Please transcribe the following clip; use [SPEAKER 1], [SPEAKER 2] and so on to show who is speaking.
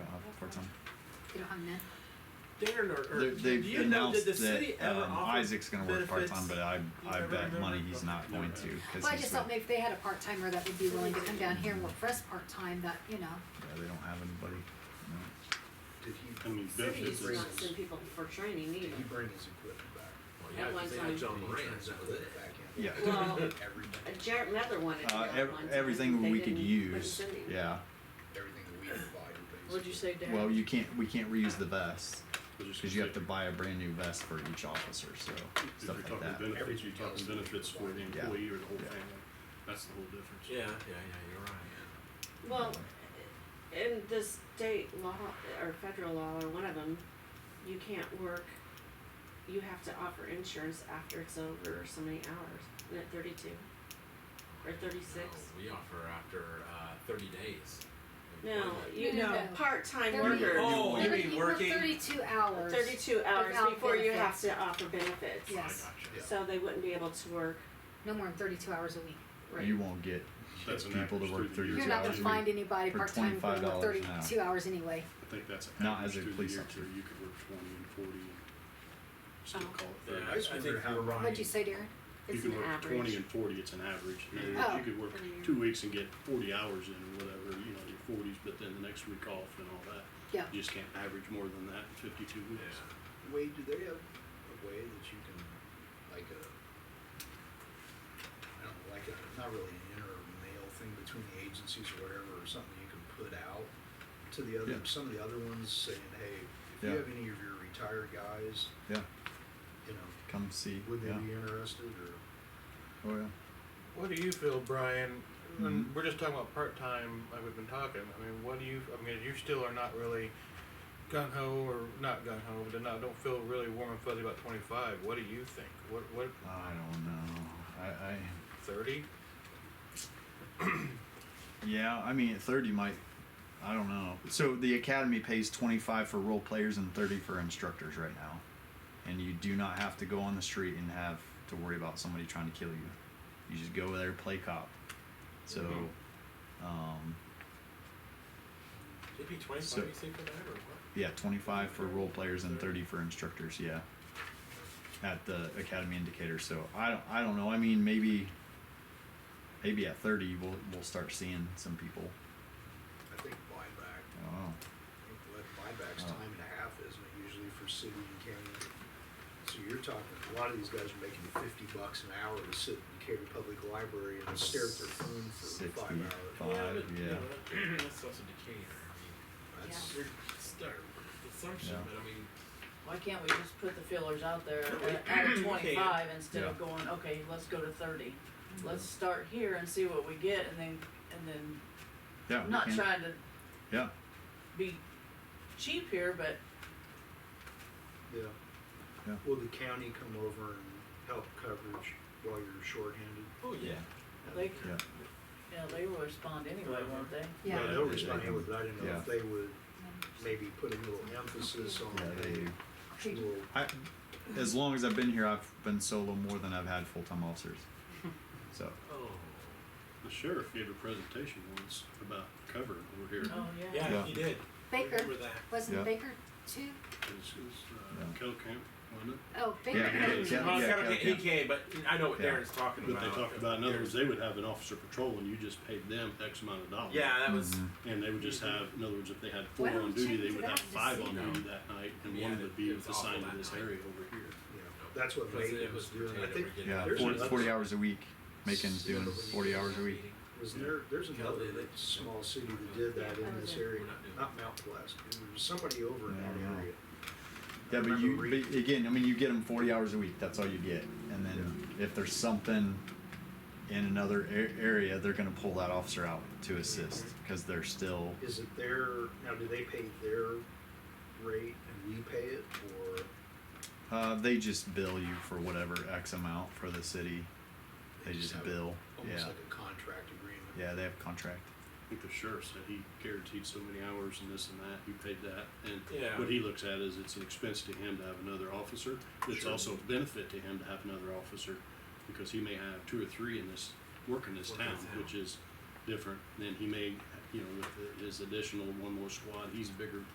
[SPEAKER 1] them.
[SPEAKER 2] Darn it.
[SPEAKER 3] Darren or,
[SPEAKER 1] They're-
[SPEAKER 3] or do
[SPEAKER 1] They've
[SPEAKER 3] you know, did
[SPEAKER 1] announced
[SPEAKER 3] the city
[SPEAKER 1] that
[SPEAKER 3] ever
[SPEAKER 1] um,
[SPEAKER 3] offer
[SPEAKER 1] Isaac's gonna work
[SPEAKER 3] benefits?
[SPEAKER 1] part-time, but I,
[SPEAKER 3] You
[SPEAKER 1] I
[SPEAKER 3] ever
[SPEAKER 1] bet
[SPEAKER 3] remember?
[SPEAKER 1] money he's not
[SPEAKER 3] No,
[SPEAKER 1] going
[SPEAKER 3] no.
[SPEAKER 1] to, cause
[SPEAKER 2] Well, I
[SPEAKER 1] he's
[SPEAKER 2] just
[SPEAKER 1] a-
[SPEAKER 2] thought maybe they had a part-timer that would be willing to come down here and work for us part-time, that, you know,
[SPEAKER 1] yeah, they don't have anybody. No.
[SPEAKER 4] Did
[SPEAKER 5] I
[SPEAKER 4] he,
[SPEAKER 5] mean,
[SPEAKER 6] City
[SPEAKER 5] benefits
[SPEAKER 6] used to
[SPEAKER 5] is,
[SPEAKER 6] not send people for training
[SPEAKER 4] did he
[SPEAKER 6] either.
[SPEAKER 4] bring his equipment back?
[SPEAKER 3] Well, yeah,
[SPEAKER 6] At
[SPEAKER 3] 'cause
[SPEAKER 6] one
[SPEAKER 3] they
[SPEAKER 6] time.
[SPEAKER 3] had John Moran's, Oh, that was it.
[SPEAKER 4] Back in?
[SPEAKER 1] Yeah,
[SPEAKER 6] Well,
[SPEAKER 4] Everything,
[SPEAKER 6] Jared Mather wanted to
[SPEAKER 1] uh,
[SPEAKER 6] go
[SPEAKER 1] ev-
[SPEAKER 6] one time.
[SPEAKER 1] everything
[SPEAKER 6] They
[SPEAKER 1] we could
[SPEAKER 6] didn't- wouldn't
[SPEAKER 1] use,
[SPEAKER 6] send him.
[SPEAKER 1] yeah.
[SPEAKER 4] everything that we provided, basically.
[SPEAKER 6] What'd you say, Darren?
[SPEAKER 1] Well, you can't, we can't reuse the vests,
[SPEAKER 5] I was just
[SPEAKER 1] cause you
[SPEAKER 5] gonna
[SPEAKER 1] have to buy a brand new vest for each officer, so,
[SPEAKER 5] say,
[SPEAKER 1] stuff
[SPEAKER 5] If
[SPEAKER 1] like that.
[SPEAKER 5] you're talking benefits, you're
[SPEAKER 4] Everything else
[SPEAKER 5] talking
[SPEAKER 4] is
[SPEAKER 5] benefits for the
[SPEAKER 4] required.
[SPEAKER 1] Yeah.
[SPEAKER 5] employee or the whole
[SPEAKER 1] Yeah.
[SPEAKER 5] family, that's the whole difference.
[SPEAKER 3] Yeah, yeah, yeah, you're right.
[SPEAKER 6] Well, in the state law or federal law or one of them, you can't work. You have to offer insurance after it's over so many hours. Isn't it thirty-two or
[SPEAKER 3] Yeah.
[SPEAKER 6] thirty-six?
[SPEAKER 3] No, We offer after uh, 30 days. of
[SPEAKER 6] No,
[SPEAKER 3] employment.
[SPEAKER 6] you
[SPEAKER 2] No, no,
[SPEAKER 6] know,
[SPEAKER 2] no.
[SPEAKER 6] part-time
[SPEAKER 2] They're-
[SPEAKER 6] workers.
[SPEAKER 3] Oh, you
[SPEAKER 2] They're-
[SPEAKER 3] mean
[SPEAKER 2] you work
[SPEAKER 3] working?
[SPEAKER 2] Thirty-two hours.
[SPEAKER 6] Thirty-two hours
[SPEAKER 2] Without
[SPEAKER 6] before you
[SPEAKER 2] benefits.
[SPEAKER 6] have to offer benefits.
[SPEAKER 3] I
[SPEAKER 2] Yeah.
[SPEAKER 3] gotcha.
[SPEAKER 2] yes.
[SPEAKER 4] Yeah.
[SPEAKER 6] So they wouldn't be able to work.
[SPEAKER 2] No more than thirty-two hours a week.
[SPEAKER 6] Right.
[SPEAKER 1] You won't get
[SPEAKER 5] That's an
[SPEAKER 1] people to
[SPEAKER 5] average
[SPEAKER 1] work
[SPEAKER 5] through the
[SPEAKER 1] Thirty-two
[SPEAKER 2] You're
[SPEAKER 5] year.
[SPEAKER 2] not gonna
[SPEAKER 1] hours a
[SPEAKER 2] find
[SPEAKER 1] week
[SPEAKER 2] anybody
[SPEAKER 1] for
[SPEAKER 2] part-time for
[SPEAKER 1] $25 an
[SPEAKER 2] thirty-two hours anyway.
[SPEAKER 5] I think that's an
[SPEAKER 1] Not as
[SPEAKER 5] average
[SPEAKER 1] a
[SPEAKER 5] through the
[SPEAKER 1] police
[SPEAKER 5] year,
[SPEAKER 1] officer.
[SPEAKER 5] too, you could work twenty and forty and still
[SPEAKER 6] Oh.
[SPEAKER 5] call it
[SPEAKER 3] Yeah,
[SPEAKER 5] thirty.
[SPEAKER 3] I, I think
[SPEAKER 4] wonder how
[SPEAKER 3] you're right.
[SPEAKER 2] What'd you say, Darren?
[SPEAKER 5] You
[SPEAKER 6] It's
[SPEAKER 5] could
[SPEAKER 6] an
[SPEAKER 5] work
[SPEAKER 6] average.
[SPEAKER 5] twenty and forty, it's an average. In other
[SPEAKER 2] Yeah.
[SPEAKER 5] words, You could work
[SPEAKER 6] Oh.
[SPEAKER 5] two weeks and get forty hours in or whatever, you know, your forties, but then the next week off and all that.
[SPEAKER 2] Yeah.
[SPEAKER 5] You just can't average more than that in fifty-two
[SPEAKER 3] Yeah.
[SPEAKER 5] weeks.
[SPEAKER 4] Wade, do they have a way that you can, like a, I don't know, like a, not really an inter-mail thing between the agencies or whatever, or something you can put out to the other,
[SPEAKER 1] Yeah.
[SPEAKER 4] some of the other ones saying, hey, if you
[SPEAKER 1] Yeah.
[SPEAKER 4] have any of your retired guys,
[SPEAKER 1] yeah,
[SPEAKER 4] you know,
[SPEAKER 1] come see,
[SPEAKER 4] would they
[SPEAKER 1] yeah,
[SPEAKER 4] be interested, or?
[SPEAKER 1] oh yeah.
[SPEAKER 7] What do you feel, Brian? And
[SPEAKER 1] Mhm.
[SPEAKER 7] we're just talking about part time, like we've been talking. I mean, what do you? I mean, you still are not really gung ho, or not gung ho, but not don't feel really warm and fuzzy about twenty five. What do you think? What what
[SPEAKER 1] I don't know, I, I,
[SPEAKER 7] thirty?
[SPEAKER 1] Yeah, I mean, at 30 might. I don't know. So the academy pays 25 for role players and 30 for instructors right now. And you do not have to go on the street and have to worry about somebody trying to kill you. You just go there, play cop. So, um,
[SPEAKER 3] Did it be 25
[SPEAKER 1] So-
[SPEAKER 3] you say for that or what?
[SPEAKER 1] yeah, 25 for role players and 30 for instructors, yeah. At the academy indicator. So I don't, I don't know. I mean, maybe maybe at 30 we'll we'll start seeing some people.
[SPEAKER 4] I think buyback,
[SPEAKER 1] I don't know.
[SPEAKER 4] I think what buyback's
[SPEAKER 1] Oh.
[SPEAKER 4] time and a half, isn't it, usually for city and county? So you're talking, a lot of these guys are making fifty bucks an hour to sit in Decatur Public Library and stare at their phone for five
[SPEAKER 1] 60.
[SPEAKER 4] hours.
[SPEAKER 3] Yeah,
[SPEAKER 1] Five,
[SPEAKER 3] but, you
[SPEAKER 1] yeah.
[SPEAKER 3] know, that's also Decatur. I
[SPEAKER 4] That's,
[SPEAKER 3] mean, you're start assumption,
[SPEAKER 1] Yeah.
[SPEAKER 3] but I mean,
[SPEAKER 8] Why can't we just put the fillers out there at- at twenty-five instead of
[SPEAKER 1] Yeah.
[SPEAKER 8] going, okay, let's go to thirty? Let's start here and see what we get and then, and then,
[SPEAKER 1] Yeah.
[SPEAKER 8] I'm
[SPEAKER 1] we
[SPEAKER 8] not
[SPEAKER 1] can.
[SPEAKER 8] trying to
[SPEAKER 1] Yeah.
[SPEAKER 8] be cheap here, but
[SPEAKER 4] yeah.
[SPEAKER 1] Yeah.
[SPEAKER 4] Will the county come over and help coverage while you're shorthanded?
[SPEAKER 3] oh yeah.
[SPEAKER 8] they, you
[SPEAKER 1] Yeah.
[SPEAKER 8] know, they will respond anyway, won't they?
[SPEAKER 2] Yeah.
[SPEAKER 4] Yeah, they'll respond, but I didn't know if
[SPEAKER 1] Yeah.
[SPEAKER 4] they would maybe put a little emphasis
[SPEAKER 1] Yeah,
[SPEAKER 4] on,
[SPEAKER 1] they.
[SPEAKER 4] hey, we'll
[SPEAKER 1] I, as long as I've been here, I've been solo more than I've had full time officers. So
[SPEAKER 3] Oh.
[SPEAKER 5] The sheriff gave a presentation once about covering over here.
[SPEAKER 8] Oh, yeah.
[SPEAKER 3] Yeah,
[SPEAKER 1] Yeah.
[SPEAKER 3] he did.
[SPEAKER 2] Baker.
[SPEAKER 3] Remember that.
[SPEAKER 1] Yeah.
[SPEAKER 2] Wasn't Baker too?
[SPEAKER 5] It's, it's, uh,
[SPEAKER 1] Yeah.
[SPEAKER 5] Kell Camp, wasn't it?
[SPEAKER 2] Oh, Baker.
[SPEAKER 1] Yeah,
[SPEAKER 2] Baker.
[SPEAKER 1] yeah.
[SPEAKER 3] Well, it's kinda-
[SPEAKER 1] Cal
[SPEAKER 3] he
[SPEAKER 1] Camp.
[SPEAKER 3] came, but I know what
[SPEAKER 1] Yeah.
[SPEAKER 3] Darren's talking
[SPEAKER 5] But
[SPEAKER 3] about.
[SPEAKER 5] they talked about, in other words,
[SPEAKER 3] There's-
[SPEAKER 5] they would have an officer patrol and you just paid them X amount of dollars.
[SPEAKER 3] Yeah, that was.
[SPEAKER 1] Mhm.
[SPEAKER 5] And they would just have, in other words, if they had four
[SPEAKER 2] Why don't
[SPEAKER 5] on
[SPEAKER 2] we
[SPEAKER 5] duty,
[SPEAKER 2] change
[SPEAKER 5] they
[SPEAKER 2] it
[SPEAKER 5] would
[SPEAKER 2] out
[SPEAKER 5] have
[SPEAKER 2] and
[SPEAKER 5] five
[SPEAKER 2] just
[SPEAKER 5] on
[SPEAKER 2] see
[SPEAKER 5] duty that night and
[SPEAKER 3] Yeah,
[SPEAKER 5] one
[SPEAKER 3] it-
[SPEAKER 5] would
[SPEAKER 3] it
[SPEAKER 5] be
[SPEAKER 3] was
[SPEAKER 5] assigned
[SPEAKER 3] awful
[SPEAKER 5] to this
[SPEAKER 3] that night.
[SPEAKER 5] area over here.
[SPEAKER 4] Yeah, that's what
[SPEAKER 3] Because
[SPEAKER 4] Baker
[SPEAKER 3] it was
[SPEAKER 4] was doing. I
[SPEAKER 3] potato
[SPEAKER 4] think
[SPEAKER 3] rigging.
[SPEAKER 1] yeah,
[SPEAKER 4] there's
[SPEAKER 1] 40,
[SPEAKER 4] another-
[SPEAKER 1] 40 hours a week, making doing forty hours a week.
[SPEAKER 4] Was there, there's another
[SPEAKER 3] Kelly, they-
[SPEAKER 4] small city that did that in this area, not Mount Pleasant, there was somebody over in
[SPEAKER 1] Yeah, I
[SPEAKER 4] that
[SPEAKER 1] know.
[SPEAKER 4] area. I
[SPEAKER 1] Yeah, but
[SPEAKER 4] remember
[SPEAKER 1] you
[SPEAKER 4] reading-
[SPEAKER 1] but again, I mean, you get them forty hours a week. That's all you get, and then if there's something in another a- area, they're gonna pull that officer out to assist because they're still.
[SPEAKER 4] Is it their, now do they pay their rate and we pay it, or?
[SPEAKER 1] Uh, they just bill you for whatever X amount for the city. They just
[SPEAKER 4] have
[SPEAKER 1] bill.
[SPEAKER 4] Almost
[SPEAKER 1] Yeah,
[SPEAKER 4] like a contract agreement.
[SPEAKER 1] yeah, they have contract.
[SPEAKER 5] I think the sheriff said he guaranteed so many hours and this and that, he paid that.
[SPEAKER 3] Yeah.
[SPEAKER 5] And what he looks at is it's an expense to him to have another officer. It's
[SPEAKER 4] Sure.
[SPEAKER 5] also a benefit to him to have another officer because he may have two or three in this, work in this
[SPEAKER 3] Work in
[SPEAKER 5] town,
[SPEAKER 3] town.
[SPEAKER 5] which is different. Then he may, you know, with his additional one more squad, he's bigger